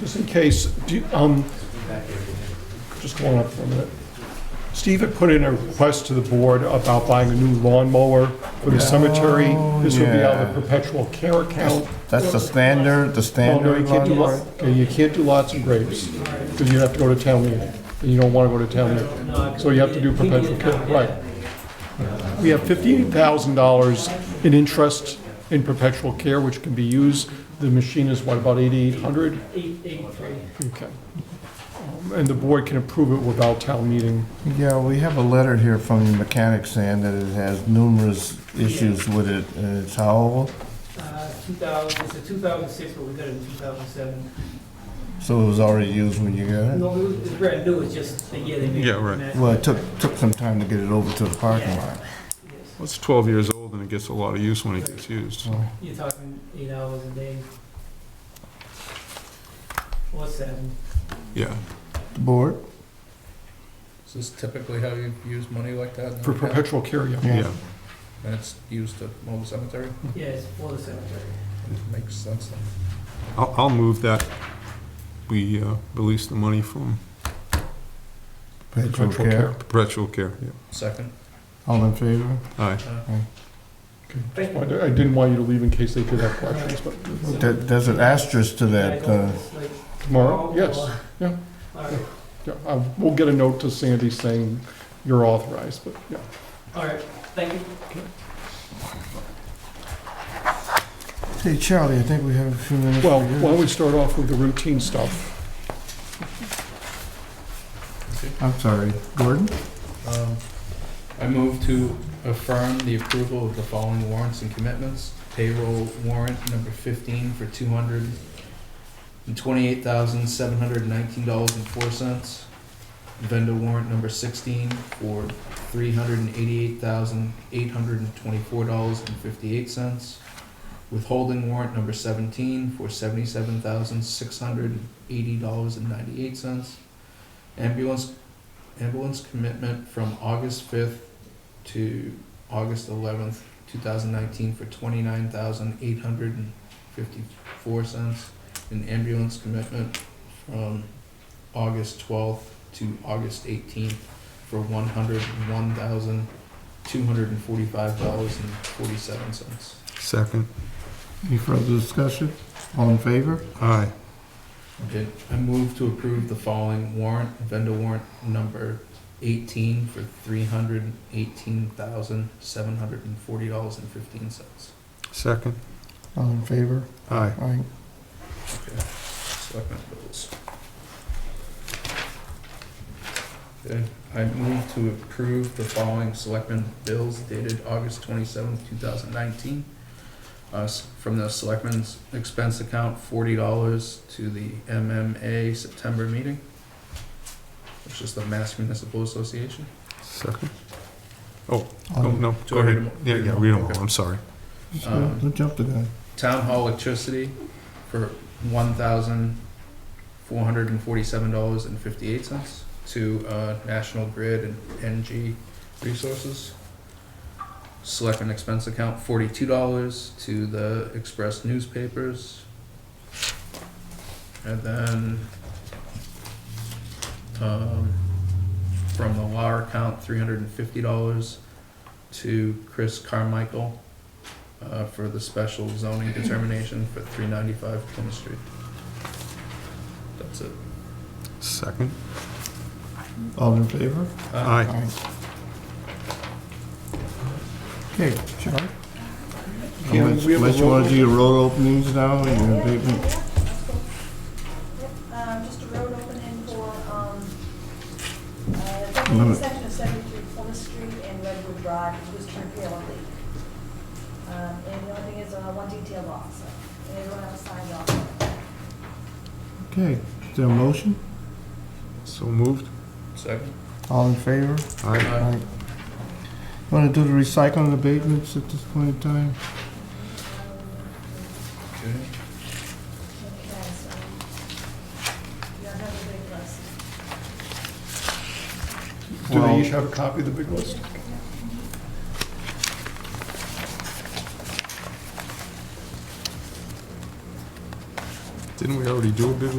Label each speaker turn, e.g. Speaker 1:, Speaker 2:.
Speaker 1: Just in case, do, you- um, just going up for a minute. Steve had put in a request to the board about buying a new lawnmower for the cemetery.
Speaker 2: Oh,
Speaker 1: This would be on
Speaker 2: yeah.
Speaker 1: the perpetual care account.
Speaker 2: That's the standard, the
Speaker 1: Oh, no, you
Speaker 2: standard
Speaker 1: can't do,
Speaker 2: lawnmower?
Speaker 1: lo- okay, you can't do lots and grapes, because you have to go to town meeting, and you don't want to go to town meeting. So you have to do perpetual care, right. We have fifty-eight thousand dollars in interest in perpetual care, which can be used. The machine is, what, about eighty-eight hundred? Okay. Um, And the board can approve it without town meeting.
Speaker 2: Yeah, we have a letter here from the mechanic saying that it has numerous issues with it, and it's how old?
Speaker 3: Uh, 2000, it's a 2006, but we got it in 2007.
Speaker 2: So it was already used when you got it?
Speaker 3: No, it was it's brand new, it's just the year they made it.
Speaker 4: Yeah, right.
Speaker 2: Well, it took, took some time to get it over to the parking lot.
Speaker 3: Yes.
Speaker 4: Well, It's 12 years old and it gets a lot of use when it gets used.
Speaker 3: You're talking eight hours a day. Or seven.
Speaker 4: Yeah.
Speaker 2: The board?
Speaker 5: Is this typically how you use money like that? in the
Speaker 1: For
Speaker 5: past?
Speaker 1: perpetual care, yeah.
Speaker 4: Yeah.
Speaker 5: And it's used to mow the cemetery?
Speaker 3: Yeah, it's for the cemetery.
Speaker 5: Makes sense. then.
Speaker 4: I'll, I'll move that we uh, release the money from
Speaker 2: Perpetual care.
Speaker 4: perpetual care. Yeah.
Speaker 5: Second?
Speaker 2: All in favor?
Speaker 4: Aye.
Speaker 1: Okay. Just wanted- I didn't want you to leave in case they did have questions, but
Speaker 2: There- There's an asterisk to
Speaker 3: I
Speaker 2: that,
Speaker 3: don't-
Speaker 2: uh,
Speaker 3: it's like-
Speaker 1: tomorrow, yes.
Speaker 3: Oh,
Speaker 1: yeah.
Speaker 3: All right,
Speaker 1: Yeah, I- we'll get a note to Sandy saying you're authorized, but, yeah.
Speaker 3: all right, thank you.
Speaker 2: hey, Charlie, I think we have a few minutes.
Speaker 1: Well,
Speaker 2: for you.
Speaker 1: why don't we start off with the routine stuff?
Speaker 2: I'm sorry, Gordon?
Speaker 5: Um, I move to affirm the approval of the following warrants and commitments. Payroll warrant number fifteen for two hundred and twenty-eight thousand, seven hundred and nineteen dollars and four cents. Vendor warrant number sixteen for three hundred and eighty-eight thousand, eight hundred and twenty-four dollars and fifty-eight cents. Withholding warrant number seventeen for seventy-seven thousand, six hundred and eighty dollars and ninety-eight cents. Ambulance ambulance commitment from August fifth to August eleventh, two thousand nineteen for twenty-nine thousand eight hundred and fifty-four cents. An ambulance commitment from August twelfth to August eighteenth for one hundred and one thousand two hundred and forty-five dollars and forty-seven cents.
Speaker 4: Second.
Speaker 2: Any further discussion? All in favor?
Speaker 4: Aye.
Speaker 5: Okay, I move to approve the following warrant, vendor warrant number eighteen for three hundred and eighteen thousand, seven hundred and forty dollars and fifteen cents.
Speaker 4: Second.
Speaker 2: All in favor?
Speaker 4: Aye.
Speaker 2: Aye.
Speaker 5: Selectmen bills. Okay, I move to approve the following selectmen bills dated August twenty-seventh, two thousand nineteen. Uh, s- from the selectmen's expense account, forty dollars to the MMA September meeting, which is the Mass Municipal Association.
Speaker 4: Second.
Speaker 2: All
Speaker 4: Oh,
Speaker 2: in-
Speaker 4: no.
Speaker 5: Do
Speaker 4: Go
Speaker 5: I read
Speaker 4: ahead.
Speaker 5: them all?
Speaker 4: Yeah, yeah, read them all. I'm sorry.
Speaker 2: Don't don't jump the gun.
Speaker 5: Um, Town hall electricity for one thousand four hundred and forty-seven dollars and fifty-eight cents to uh, National Grid and NG Resources. Select an expense account, forty-two dollars to the Express newspapers. And then um, from the law account, three hundred and fifty dollars to Chris Carmichael uh, for the special zoning determination for three ninety-five Plymouth Street. That's it.
Speaker 4: Second.
Speaker 2: All in favor?
Speaker 5: Uh,
Speaker 4: Aye.
Speaker 2: Okay, Charlie?
Speaker 1: Yeah,
Speaker 2: Unless
Speaker 1: we have a
Speaker 2: unless you
Speaker 1: roll-
Speaker 2: wanna do your road openings now, and your abatement.
Speaker 6: Um, just a road opening for, um,
Speaker 2: Limit.
Speaker 6: uh, section of seventy-three Plymouth Street and Redwood Drive, which was turned pale and leak. Um, and the only thing is, uh, one detail off, so, and everyone else signed off.
Speaker 2: Okay, is there a motion?
Speaker 4: So moved.
Speaker 5: Second?
Speaker 2: All in favor?
Speaker 4: Aye.
Speaker 5: Uh,
Speaker 2: Wanna do the recycling abatements at this point in time?
Speaker 5: okay.
Speaker 6: Okay, so, yeah, I have a big list.
Speaker 1: Do
Speaker 2: Well-
Speaker 1: they each have a copy of the big list?
Speaker 4: Didn't we already do a bid